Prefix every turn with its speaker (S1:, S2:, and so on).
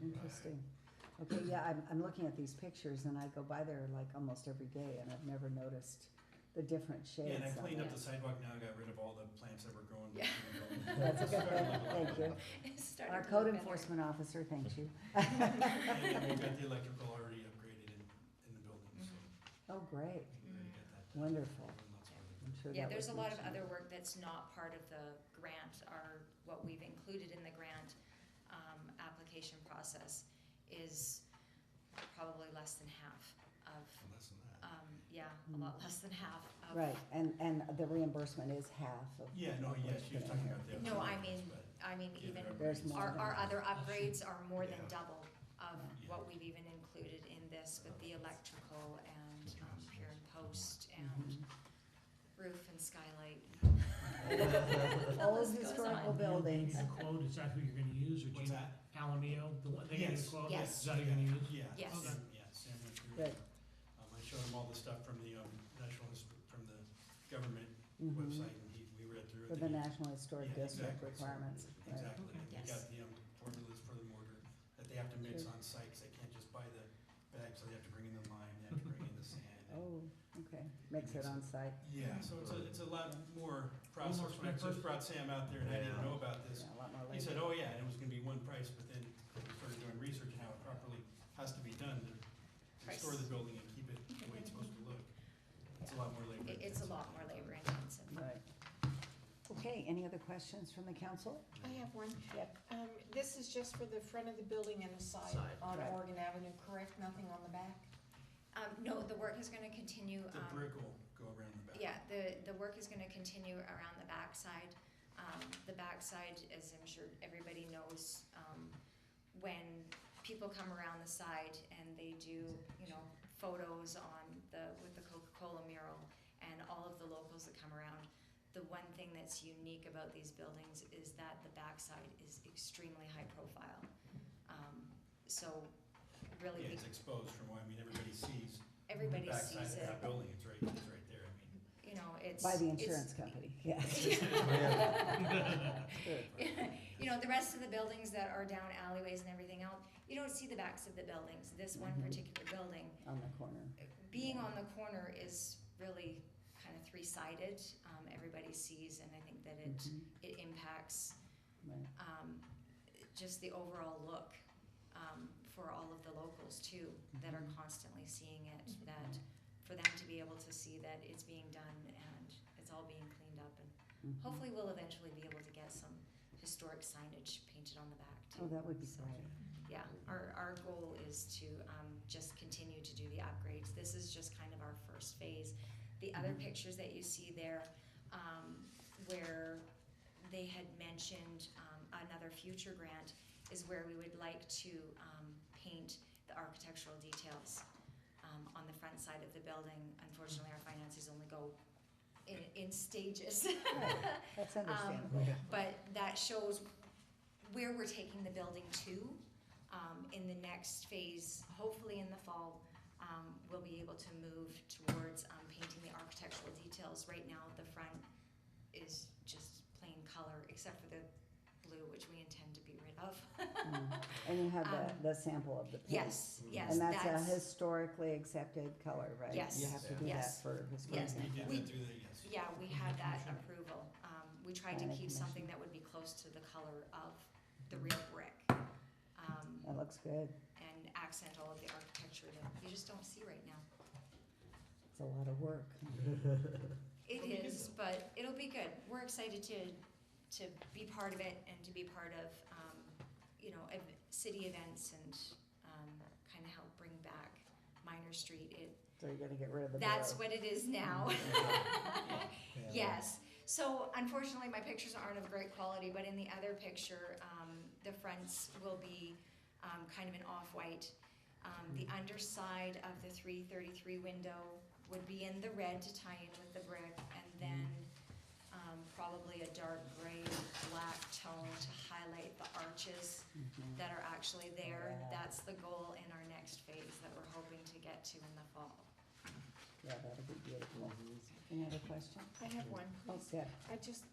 S1: Mm-hmm. Okay, yeah, I'm, I'm looking at these pictures and I go by there like almost every day and I've never noticed the different shades.
S2: Yeah, and I
S1: on
S2: cleaned up
S1: it.
S2: the sidewalk now, got rid of all the plants that were growing.
S3: Yeah.
S1: That's a good thing, thank you.
S3: It's starting
S1: Our
S3: to
S1: code
S3: look better.
S1: enforcement officer, thanks you.
S2: And we've got the electrical already upgraded in, in the building, so
S3: Mm-hmm.
S1: Oh, great,
S2: we already got that. done.
S1: wonderful.
S2: And lots of other
S1: I'm sure
S3: Yeah,
S1: that
S3: there's a
S1: was
S3: lot of
S1: mentioned.
S3: other work that's not part of the grant, or what we've included in the grant, um, application process is probably less than half of,
S2: Less than that.
S3: um, yeah, a lot less than half of.
S1: Hmm. Right, and, and the reimbursement is half of.
S2: Yeah, no,
S1: what
S2: yeah,
S1: it's
S2: she was
S1: gonna
S2: talking
S1: have.
S2: about the.
S3: No, I
S2: upgrades,
S3: mean,
S2: but
S3: I mean,
S2: yeah,
S3: even
S2: they're
S1: There's
S2: upgrades.
S1: more.
S3: Our, our other upgrades are more than
S2: Yeah.
S3: double of
S2: Yeah.
S3: what we've even included in this with the electrical and um, pier and post and
S1: Mhm.
S3: roof and skylight. The
S1: Old
S3: list goes
S1: historical
S3: on.
S1: buildings.
S4: The quote, is that who you're gonna use, or do
S2: What's
S4: you,
S2: that?
S4: Palomino, the one, they gave you
S2: Yes.
S4: the quote?
S3: Yes.
S4: Is that who you're gonna use?
S2: Yeah.
S3: Yes.
S2: Sam- Yeah, Sam went through.
S1: Good.
S2: it. Um, I showed him all the stuff from the, um, national, Ins- from the government
S1: Mhm.
S2: website, and he, we read through it.
S1: For the
S2: and he-
S1: National Historic
S2: Yeah,
S1: District
S2: exactly.
S1: requirements. right.
S2: Exactly, and we
S3: Mm-hmm. Yes.
S2: got the um, formulas for the mortar that they have to mix
S1: Sure.
S2: on site, 'cause they can't just buy the bags, so they have to bring in the lime, they have to bring in the sand. and-
S1: Oh, okay, makes it on site,
S2: Yeah, so it's a, it's a lot
S1: Yeah.
S2: more process, when I
S4: step
S2: first brought Sam out there and I didn't
S5: Yeah.
S2: know about
S1: yeah,
S2: this,
S1: a lot more
S2: he said,
S1: labor.
S2: oh yeah, it was gonna be one price, but then when we started doing research and how it properly has to be done to restore
S3: Price.
S2: the building and keep it the way it's supposed to look. It's a lot more labor.
S3: It, it's a lot more labor intensive.
S1: Right. Okay, any other questions from the council?
S6: I have one.
S1: Yep.
S6: Um, this is just for the front of the building and the side
S5: Side.
S6: on
S1: Right.
S6: Oregon Avenue, correct? Nothing on the back?
S3: Um, no, the work is gonna continue,
S2: The
S3: um,
S2: brick will go around the back.
S3: yeah, the, the work is gonna continue around the backside. Um, the backside, as I'm sure everybody knows, um, when people come around the side and they do, you know, photos on the, with the Coca-Cola mural and all of the locals that come around, the one thing that's unique about these buildings is that the backside is extremely high profile. Um, so really,
S2: Yeah, it's exposed from, where- I mean, everybody sees
S3: everybody
S2: backside
S3: sees
S2: of
S3: it,
S2: that building, it's right, it's right there, I mean.
S3: you know, it's.
S1: By the
S3: it's-
S1: insurance company, yeah. Good.
S3: you know, the rest of the buildings that are down alleyways and everything else, you don't see the backs of the buildings. This one
S2: Mm-hmm.
S1: Mhm.
S3: particular building,
S1: On the corner,
S3: being on the corner is really kind of three-sided. Um, everybody sees, and I think that it
S1: Mhm,
S2: Mm-hmm.
S3: it impacts
S1: right.
S3: um, just the overall look um, for all of the locals too that are
S1: Mhm.
S3: constantly seeing it. That for them to be able to see that it's being done and it's all being cleaned up, and
S1: Mhm.
S3: hopefully we'll eventually be able to get some historic signage painted on the back too.
S1: Oh, that would be
S3: So-
S1: great.
S3: Yeah, our, our goal is to, um, just continue to do the upgrades. This is just kind of our first phase. The other
S1: Mhm.
S3: pictures that you see there, um, where they had mentioned, um, another future grant is where we would like to, um, paint the architectural details, um, on the front side of the building. Unfortunately, our finances only go in, in stages.
S1: Right. That's understandable.
S3: But that shows where we're taking the building to, um, in the next phase, hopefully in the fall, um, we'll be able to move towards, um, painting the architectural details. Right now, the front is just plain color, except for the blue, which we intend to be rid of.
S1: Mm. And you have
S3: Um,
S1: the, the sample of the paint.
S3: Yes, yes,
S1: And that's a
S3: that's,
S1: historically accepted color, right? You
S3: Yes.
S1: have to do
S3: Yes.
S1: that for historic.
S3: Yes.
S2: We did
S3: We-
S2: that through the, yes.
S3: yeah, we had that approval. Um, we tried to
S1: And the
S3: keep something
S1: commission.
S3: that would be close to the color of the real brick. Um,
S1: That looks good.
S3: and accent all of the architecture that you just don't see right now.
S1: It's a lot of work.
S3: It
S2: It'll be good
S3: is, but it'll be good. We're excited to, to be part of it and to be part of, um, you know, ev- city events and, um, kind of help bring back Minor Street. It,
S1: So you're gonna get rid of the Mm-hmm.
S3: that's
S1: barrel.
S3: what it is now. Yes, so unfortunately, my pictures aren't of great quality, but in the other picture, um, the fronts will be, um, kind of an off-white. Um,
S1: Mm-hmm.
S3: the underside of the three thirty-three window would be in the red to tie in with the brick, and
S1: Mm-hmm.
S3: then, um, probably a dark gray, black tone to highlight the arches
S1: Mhm.
S3: that are actually there.
S1: Yeah.
S3: That's the goal in our next phase that we're hoping to get to in the fall.
S1: Yeah, that'll be beautiful. Any other questions?
S6: I have one,
S1: Oh,
S6: please.
S1: yeah.
S6: I just,